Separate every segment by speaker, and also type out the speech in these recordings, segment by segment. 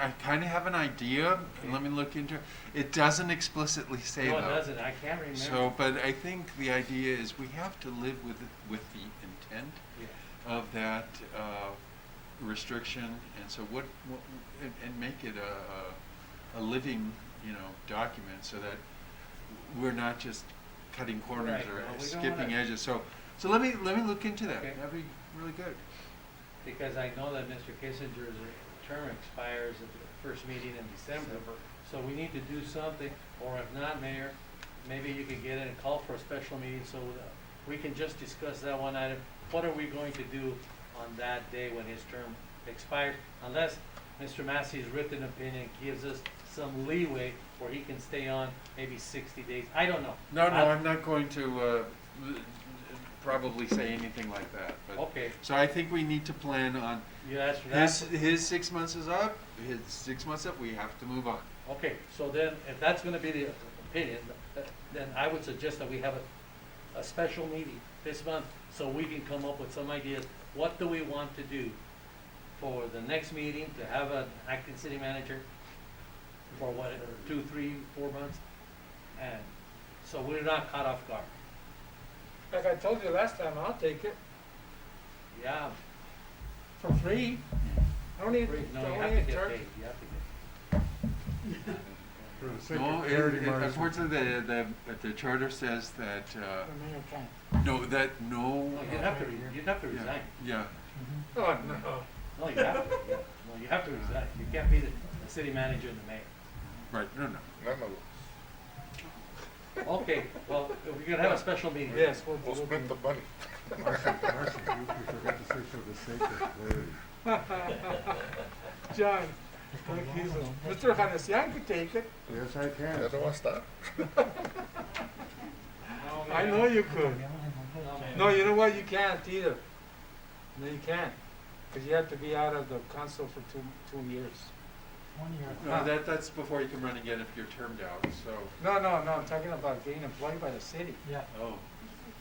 Speaker 1: I kind of have an idea, and let me look into, it It doesn't explicitly say
Speaker 2: No,
Speaker 1: though.
Speaker 2: it doesn't, I can't remember.
Speaker 1: So, but I think the idea is we have to live with, with the intent
Speaker 2: Yeah.
Speaker 1: of that uh, restriction, and so what, what- and- and make it a, a- a living, you know, document, so that we're not just cutting corners
Speaker 2: Right,
Speaker 1: or
Speaker 2: well, we don't
Speaker 1: skipping
Speaker 2: wanna-
Speaker 1: edges, so, so let me, let me look into that,
Speaker 2: Okay.
Speaker 1: that'd be really good.
Speaker 2: Because I know that Mr. Kissinger's term expires at the first meeting in December. So we need to do something, or if not, Mayor, maybe you can get in and call for a special meeting so that we can just discuss that one item. What are we going to do on that day when his term expires? Unless Mr. Massey's written opinion gives us some leeway where he can stay on maybe sixty days. I don't know.
Speaker 1: No, no,
Speaker 2: I-
Speaker 1: I'm not going to uh, probably say anything like that, but,
Speaker 2: Okay,
Speaker 1: so I think we need to plan on
Speaker 2: you asked for that.
Speaker 1: His, his six months is up. His six months up. We have to move on.
Speaker 2: Okay, so then, if that's gonna be the opinion, then I would suggest that we have a, a special meeting this month, so we can come up with some ideas, what do we want to do for the next meeting, to have an acting city manager for what, two, three, four months? And, so we're not caught off guard.
Speaker 3: Like I told you last time, I'll take it
Speaker 2: Yeah,
Speaker 3: for free. I don't need,
Speaker 2: no, you
Speaker 3: I
Speaker 2: have
Speaker 3: don't
Speaker 2: to get
Speaker 3: need a
Speaker 2: paid,
Speaker 3: charge.
Speaker 2: you have to get.
Speaker 4: For the sake
Speaker 1: No,
Speaker 4: of
Speaker 1: it,
Speaker 4: clarity,
Speaker 1: it-
Speaker 4: Marty.
Speaker 1: unfortunately, the, the the charter says that
Speaker 3: The
Speaker 1: uh,
Speaker 3: mayor can.
Speaker 1: no, that no.
Speaker 2: No, you'd have to, re- you'd have to
Speaker 1: Oh, yeah,
Speaker 2: resign.
Speaker 1: yeah.
Speaker 3: Oh, no.
Speaker 2: No, you have to, yeah. no, you have to resign, you can't be the, the city manager and the mayor.
Speaker 1: Right. No, no.
Speaker 5: No, no,
Speaker 2: Okay, well, we're gonna have a special meeting.
Speaker 3: Yes, we'll,
Speaker 5: we'll
Speaker 3: we'll do
Speaker 5: split the money.
Speaker 4: Marcy, Marcy, you you forgot to say for the sake of clarity.
Speaker 3: it. John, like he's a- Mr. Hanesian could take it.
Speaker 4: Yes, I
Speaker 5: Ya
Speaker 4: can.
Speaker 5: no va a estar.
Speaker 3: I know you could. No, you know what? You can't either. No, you can't. Because you have to be out of the council for two, two years.
Speaker 1: No, that that's before you can run again if you're termed out. So.
Speaker 3: No, no, no, I'm talking about getting employed by the city.
Speaker 1: Oh.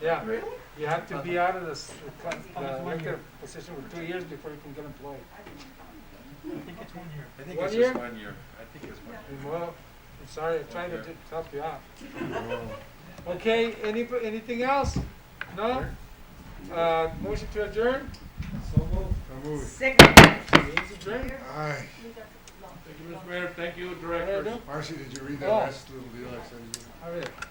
Speaker 3: Yeah. Really? You have to
Speaker 2: Uh-huh.
Speaker 3: be out of the, s- the con- the elected position for two years before you can get employed.
Speaker 1: I think
Speaker 3: One
Speaker 1: it's
Speaker 3: year?
Speaker 1: just one year. I think it's one. year.
Speaker 3: Well, I'm sorry, I tried to
Speaker 1: Okay.
Speaker 3: do- help you out.
Speaker 4: Well,
Speaker 3: Okay, any, anything else? No? Uh, motion to adjourn?
Speaker 4: I move.
Speaker 3: Meeting's adjourned.
Speaker 4: Aye.
Speaker 2: Thank you, Mr. Mayor, thank you,
Speaker 3: Right,
Speaker 2: Director.
Speaker 3: no?
Speaker 4: Marcy, did you read that
Speaker 3: Oh.
Speaker 4: last little deal I sent you?
Speaker 3: All right.